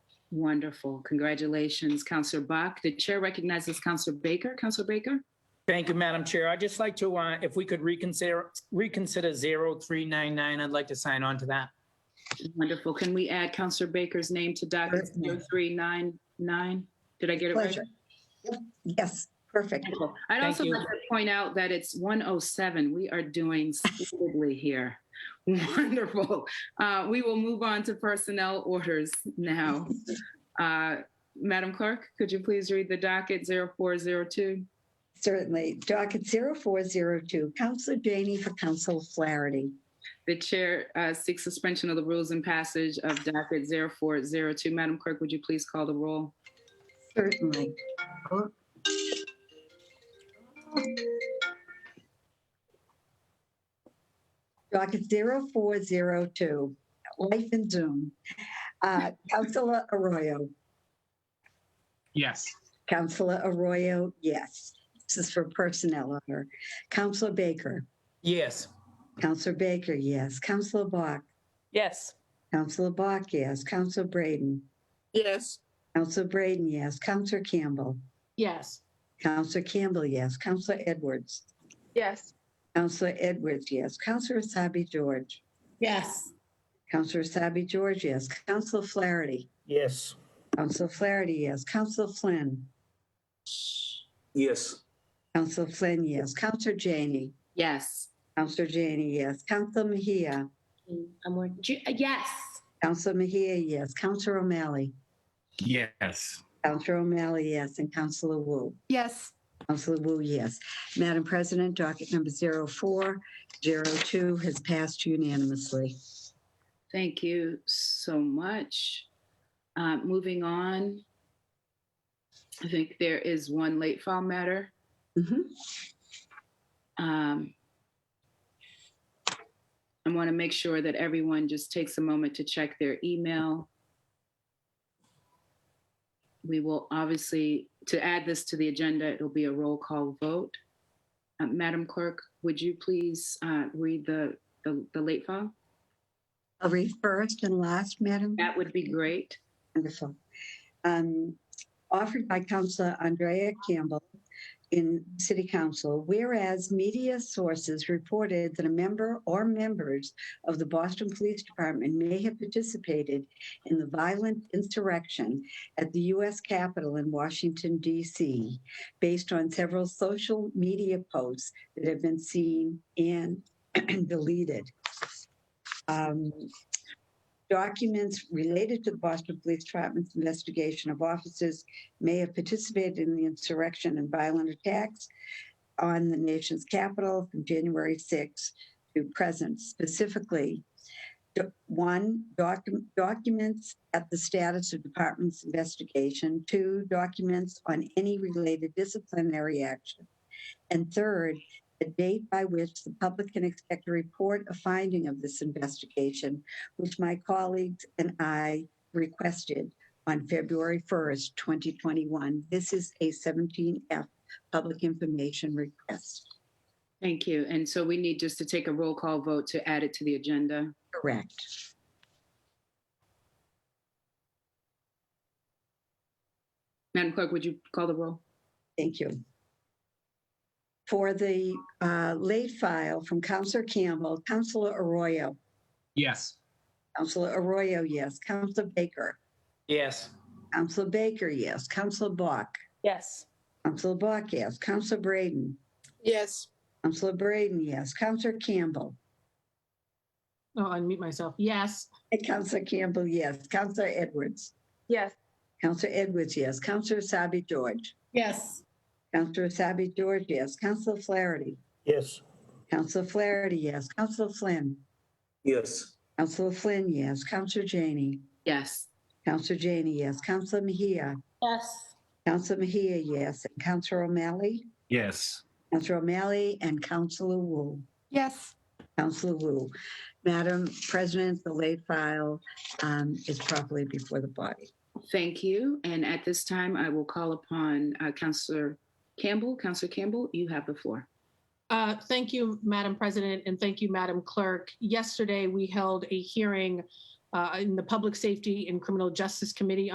Wonderful. Congratulations, Counselor Bach. The chair recognizes Counselor Baker. Counselor Baker? Thank you, Madam Chair. I'd just like to, uh, if we could reconsider, reconsider 0399, I'd like to sign on to that. Wonderful. Can we add Counselor Baker's name to docket Certainly. 0399? Did I get it right? Pleasure. Yes, perfect. Wonderful. I'd Thank also you. like to point out that it's 107. We are doing splendidly here. Wonderful. Uh, We will move on to personnel orders now. Uh, Madam Clerk, could you please read the docket 0402? Certainly. Docket 0402, Counselor Janey for Counsel Flaherty. The chair uh, seeks suspension of the rules and passage of docket 0402. Madam Clerk, would you please call the roll? Certainly. Docket 0402, Life in Zoom. Uh, Counselor Arroyo. Yes. Counselor Arroyo, yes. This is for personnel order. Counselor Baker. Yes. Counselor Baker, yes. Counselor Bach. Yes. Counselor Bach, yes. Counselor Braden. Yes. Counselor Braden, yes. Counselor Campbell. Yes. Counselor Campbell, yes. Counselor Edwards. Yes. Counselor Edwards, yes. Counselor Asabi George. Yes. Counselor Asabi George, yes. Counselor Flaherty. Yes. Counselor Flaherty, yes. Counselor Flynn. Yes. Counselor Flynn, yes. Counselor Janey. Yes. Counselor Janey, yes. Counselor Mejia. I'm more, yes. Counselor Mejia, yes. Counselor O'Malley. Yes. Counselor O'Malley, yes. And Counselor Wu. Yes. Counselor Wu, yes. Madam President, docket number 0402 has passed unanimously. Thank you so much. Uh, Moving on, I think there is one late file matter. Mhm. Um, I want to make sure that everyone just takes a moment to check their email. We will obviously, to add this to the agenda, it'll be a roll call vote. Uh, Madam Clerk, would you please uh, read the, the the late file? I'll read first and last, Madam. That would be great. Wonderful. Um, Offered by Counselor Andrea Campbell in City Council, whereas media sources reported that a member or members of the Boston Police Department may have participated in the violent insurrection at the U.S. Capitol in Washington, D.C., based on several social media posts that have been seen and deleted. Um, Documents related to the Boston Police Department's investigation of officers may have participated in the insurrection and violent attacks on the nation's capital from January 6 to present. Specifically, do- one, docu- documents at the status of department's investigation. Two, documents on any related disciplinary action. And third, the date by which the public can expect a report of finding of this investigation which my colleagues and I requested on February 1st, 2021. This is a 17F public information request. Thank you. And so we need just to take a roll call vote to add it to the agenda. Correct. Madam Clerk, would you call the roll? Thank you. For the uh, late file from Counselor Campbell, Counselor Arroyo, Yes. Counselor Arroyo, yes. Counselor Baker, Yes. Counselor Baker, yes. Counselor Bach, Yes. Counselor Bach, yes. Counselor Braden, Yes. Counselor Braden, yes. Counselor Campbell, Oh, unmute myself. Yes. And Counselor Campbell, yes. Counselor Edwards. Yes. Counselor Edwards, yes. Counselor Asabi George. Yes. Counselor Asabi George, yes. Counselor Flaherty. Yes. Counselor Flaherty, yes. Counselor Flynn. Yes. Counselor Flynn, yes. Counselor Janey. Yes. Counselor Janey, yes. Counselor Mejia. Yes. Counselor Mejia, yes. And Counselor O'Malley. Yes. Counselor O'Malley and Counselor Wu. Yes. Counselor Wu. Madam President, the late file um, is properly before the body. Thank you. And at this time, I will call upon uh, Counselor Campbell. Counselor Campbell, you have the floor. Uh, Thank you, Madam President, and thank you, Madam Clerk. Yesterday, we held a hearing uh, in the Public Safety and Criminal Justice Committee